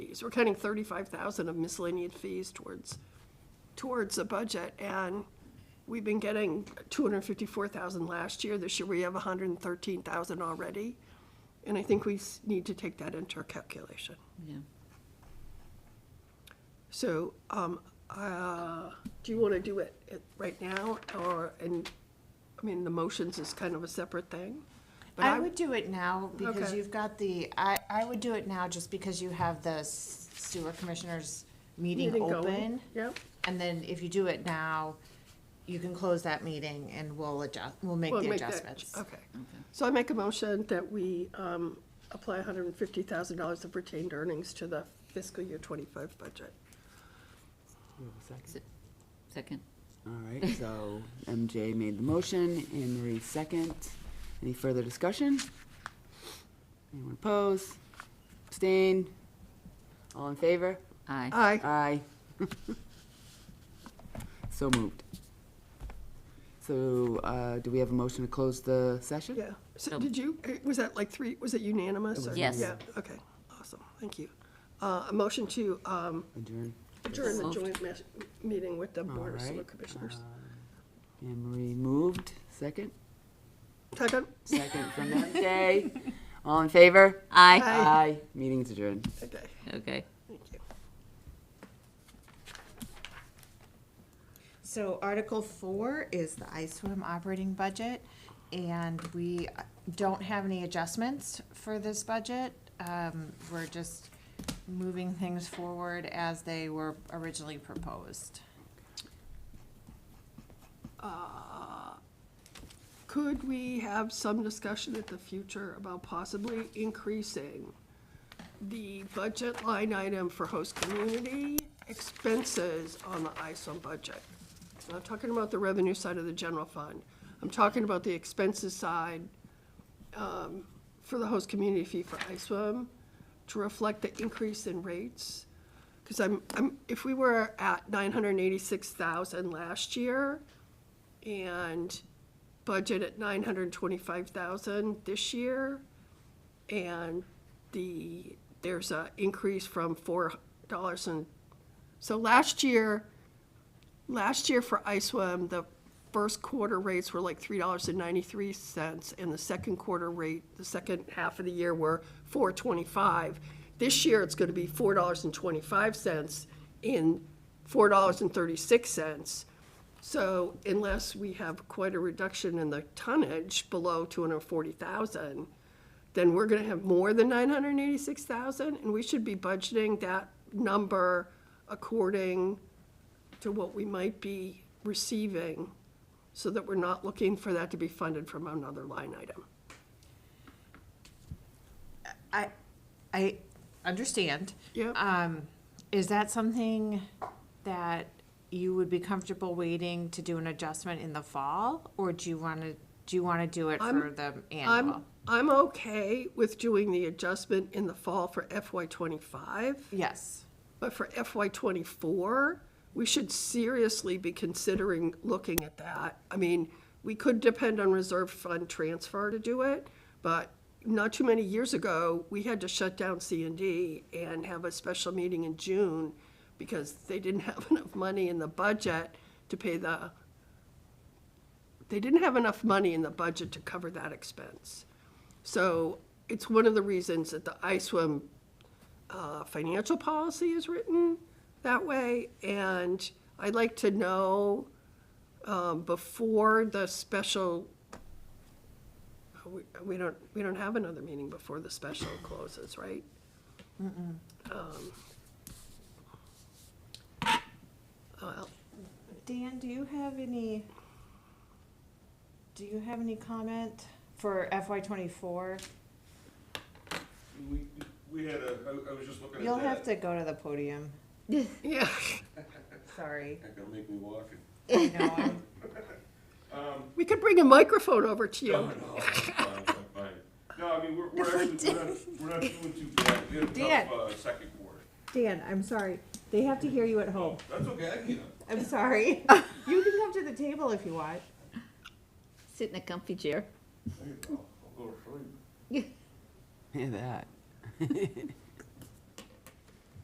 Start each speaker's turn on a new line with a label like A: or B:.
A: fees. We're cutting thirty-five thousand of miscellaneous fees towards, towards the budget, and we've been getting two hundred and fifty-four thousand last year. This year, we have hundred and thirteen thousand already, and I think we s- need to take that into our calculation.
B: Yeah.
A: So, um, uh, do you want to do it it right now, or, and, I mean, the motions is kind of a separate thing? but
C: I would do it now because
A: Okay.
C: you've got the, I, I would do it now just because you have the s- sewer commissioners meeting
A: Meeting going,
C: open.
A: Yep,
C: And then if you do it now, you can close that meeting and we'll adjust, we'll make
A: we'll
C: the
A: make that,
C: adjustments.
A: okay. So I make a motion that we, um, apply hundred and fifty thousand dollars of retained earnings to the fiscal year twenty-five budget.
D: We have a second.
B: Se- Second.
D: All right, so MJ made the motion, Anne Marie second. Any further discussion? Anyone oppose? Abstain? All in favor?
B: Aye.
A: Aye.
D: Aye. So moved. So, uh, do we have a motion to close the session?
A: Yeah, so did you, eh, was that like three, was it unanimous? or-
B: Yes.
A: Yeah, okay, awesome, thank you. Uh, a motion to, um,
D: Adjourn.
A: adjourn the
B: Moved.
A: joint mes- meeting with the
D: All
A: Board of Sewer
D: right,
A: Commissioners.
D: uh, Anne Marie moved, second?
A: Second?
D: Second from MJ. All in favor?
B: Aye.
D: Aye. Meeting's adjourned.
A: Okay,
B: Okay.
A: thank you.
C: So Article four is the ISWIM operating budget, and we don't have any adjustments for this budget. Um, we're just moving things forward as they were originally proposed.
A: Could we have some discussion at the future about possibly increasing the budget line item for host community expenses on the ISOM budget? I'm not talking about the revenue side of the general fund. I'm talking about the expenses side um, for the host community fee for ISOM to reflect the increase in rates. Because I'm, I'm, if we were at nine hundred and eighty-six thousand last year, and budget at nine hundred and twenty-five thousand this year. And the, there's a increase from four dollars and, so last year, last year for ISWAM, the first quarter rates were like three dollars and ninety-three cents, and the second quarter rate, the second half of the year were four twenty-five. This year, it's gonna be four dollars and twenty-five cents and four dollars and thirty-six cents. So unless we have quite a reduction in the tonnage below two hundred and forty thousand, then we're gonna have more than nine hundred and eighty-six thousand, and we should be budgeting that number according to what we might be receiving, so that we're not looking for that to be funded from another line item.
C: I, I understand.
A: Yep.
C: Um, is that something that you would be comfortable waiting to do an adjustment in the fall? Or do you wanna, do you wanna do it for the
A: I'm,
C: annual?
A: I'm okay with doing the adjustment in the fall for FY twenty-five.
C: Yes,
A: But for FY twenty-four, we should seriously be considering looking at that. I mean, we could depend on reserve fund transfer to do it, but not too many years ago, we had to shut down C and D and have a special meeting in June because they didn't have enough money in the budget to pay the, they didn't have enough money in the budget to cover that expense. So it's one of the reasons that the ISWIM uh, financial policy is written that way, and I'd like to know um, before the special, we- we don't, we don't have another meeting before the special closes, right? Um, well,
C: Dan, do you have any, do you have any comment for FY twenty-four?
E: We, we had a, I, I was just looking at that.
C: You'll have to go to the podium,
A: Yeah,
C: sorry.
E: Not gonna make me walk it.
C: I know, I'm-
A: we could bring a microphone over to
E: No,
A: you.
E: no, I'm fine, I'm fine. No, I mean, we're, we're actually, we're not, we're not doing too bad. We had a
C: Dan.
E: tough, uh, second quarter.
C: Dan, I'm sorry, they have to hear you at home,
E: That's okay, I can,
C: I'm sorry. You can come to the table if you want.
B: Sit in a comfy chair.
E: I'll go to sleep.
D: Yeah, that.